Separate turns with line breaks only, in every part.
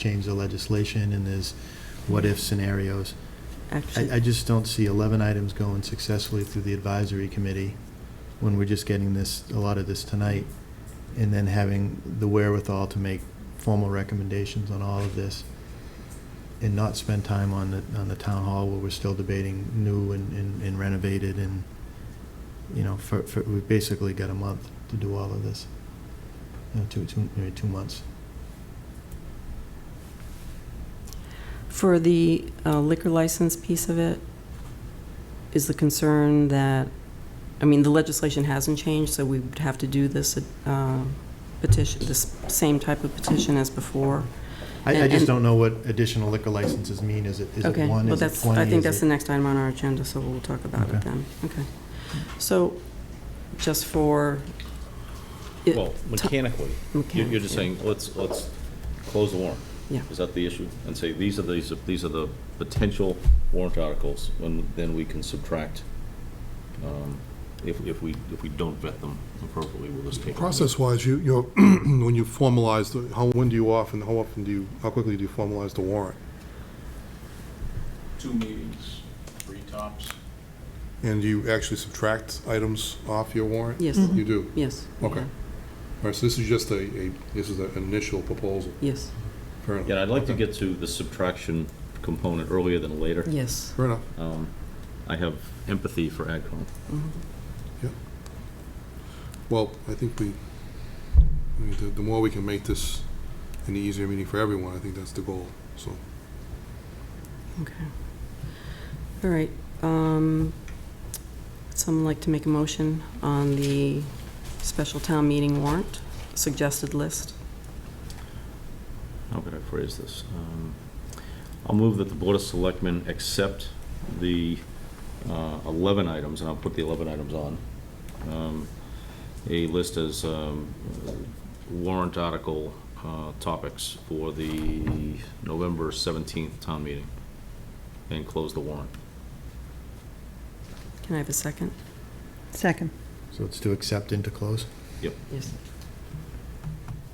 change the legislation, and there's what-if scenarios. I, I
Actually,
just don't see 11 items going successfully through the advisory committee when we're just getting this, a lot of this tonight, and then having the wherewithal to make formal recommendations on all of this, and not spend time on the, on the town hall where we're still debating new and- and and renovated, and, you know, for, for, we've basically got a month to do all of this. You know, two, two, maybe two months.
for the uh, liquor license piece of it, is the concern that, I mean, the legislation hasn't changed, so we would have to do this uh, petition, this same type of petition as before?
I, I
And-
just
and-
don't know what additional liquor licenses mean. Is it, is it
Okay,
one,
well,
is it
that's,
20?
I think
Is
that's
it-
the next item on our agenda, so we'll talk about it
Okay.
then. Okay. So, just for. it-
Well,
ti-
mechanically, you're you're just saying, let's, let's close the warrant.
Yeah.
Is that the issue? And say, these are, these are, these are the potential warrant articles, and then we can subtract, um, if, if we, if we don't vet them appropriately, we'll just take. them.
Process-wise, you, you, know, when you formalize, the how, when do you often, how often do you, how quickly do you formalize the warrant?
two meetings, three tops.
And do you actually subtract items off your warrant?
Yes,
You do?
yes.
Okay. All right, so this is just a, a, this is an initial proposal,
Yes,
fair
Yeah, and
enough.
I'd like to get to the subtraction component earlier than later.
yes.
Fair enough.
Um, I have empathy for AgCom.
Mm-hmm.
Well, I think we, I mean, the, the more we can make this an easier meeting for everyone, I think that's the goal, so.
Okay. All right. um, would Someone like to make a motion on the special town meeting warrant, suggested list?
how could I phrase this? Um, I'll move that the Board of Selectmen accept the uh, 11 items, and I'll put the 11 items on, um, a list as um, warrant article uh, topics for the November 17th town meeting, and close the warrant.
Can I have a second?
Second.
So it's to accept and to close?
Yes.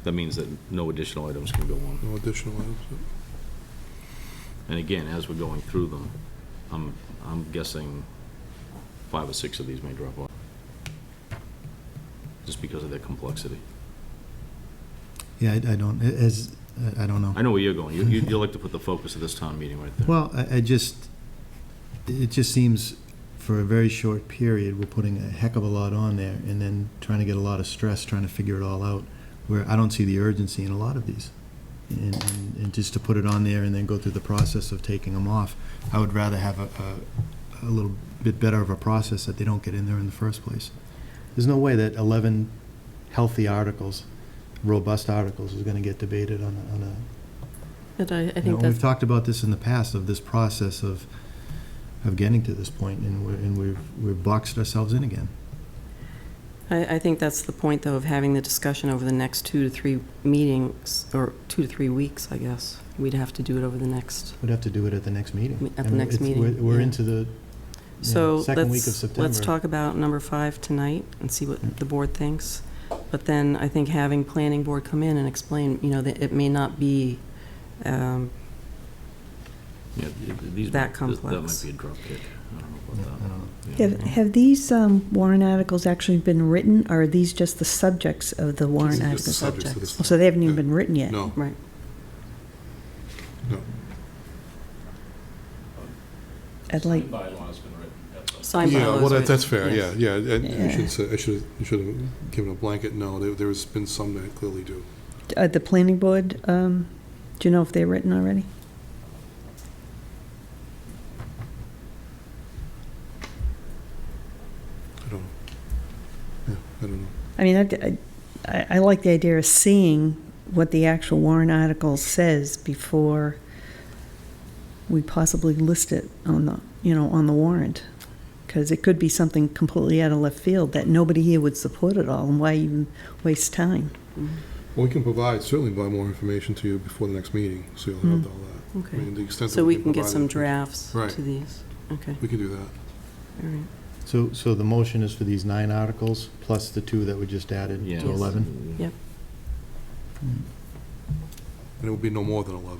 That means that no additional items can go on.
No additional items.
And again, as we're going through them, I'm, I'm guessing five or six of these may drop off, just because of their complexity.
Yeah, I, I don't, a- as, I- I don't know.
I know where you're going. You, you you like to put the focus of this town meeting right there.
Well, I, I just, it just seems for a very short period, we're putting a heck of a lot on there and then trying to get a lot of stress, trying to figure it all out, where I don't see the urgency in a lot of these. And, and- and just to put it on there and then go through the process of taking them off, I would rather have a, a, a little bit better of a process that they don't get in there in the first place. There's no way that eleven healthy articles, robust articles, is gonna get debated on a, on a
But I, I
you know,
think
we've
that's,
talked about this in the past, of this process of, of getting to this point, and we're, and we've, we've boxed ourselves in again.
I, I think that's the point, though, of having the discussion over the next two to three meetings, or two to three weeks, I guess. We'd have to do it over the next,
We'd have to do it at the next meeting.
At the
I mean,
next
it's-
meeting,
we're- We're
yeah.
into the, you know,
So
second week of
let's,
September.
let's talk about number five tonight and see what the board thinks. But then I think having planning board come in and explain, you know, that it may not be, um,
Yeah, th- th- these
That
might- th- That
complex.
might be a drop kick. I
Yeah,
don't know
I
about
don't know.
that. Yeah.
Have, have these um, warrant articles actually been written, or are these just the subjects of the warrant
This is just the
articles?
subjects of
subjects.
Oh,
this-
So they haven't even been written yet?
No,
right,
no.
I'd like,
The Bylaw's been written, that's all.
sign
Yeah, well,
bylaws.
that-
right?
that's fair, yeah, yeah. and I
Yeah.
should say, I should, I should have given a blanket no. There- There's been some that clearly do.
uh, the planning board, um, do you know if they're written already?
I don't know. Yeah, I don't know.
I mean, I, I, I like the idea of seeing what the actual warrant article says before we possibly list it on the, you know, on the warrant. Because it could be something completely out of left field that nobody here would support at all, and why even waste time?
Mm-hmm.
Well, we can provide, certainly provide more information to you before the next meeting, so you'll have all that. I
Hmm. Okay,
mean, the extent that
so we can get
provide
some
it,
drafts
Right.
to these, okay,
We can do that.
all right.
So, so the motion is for these nine articles, plus the two that we just added
Yeah.
to eleven?
Yep.
And it will be no more than 11.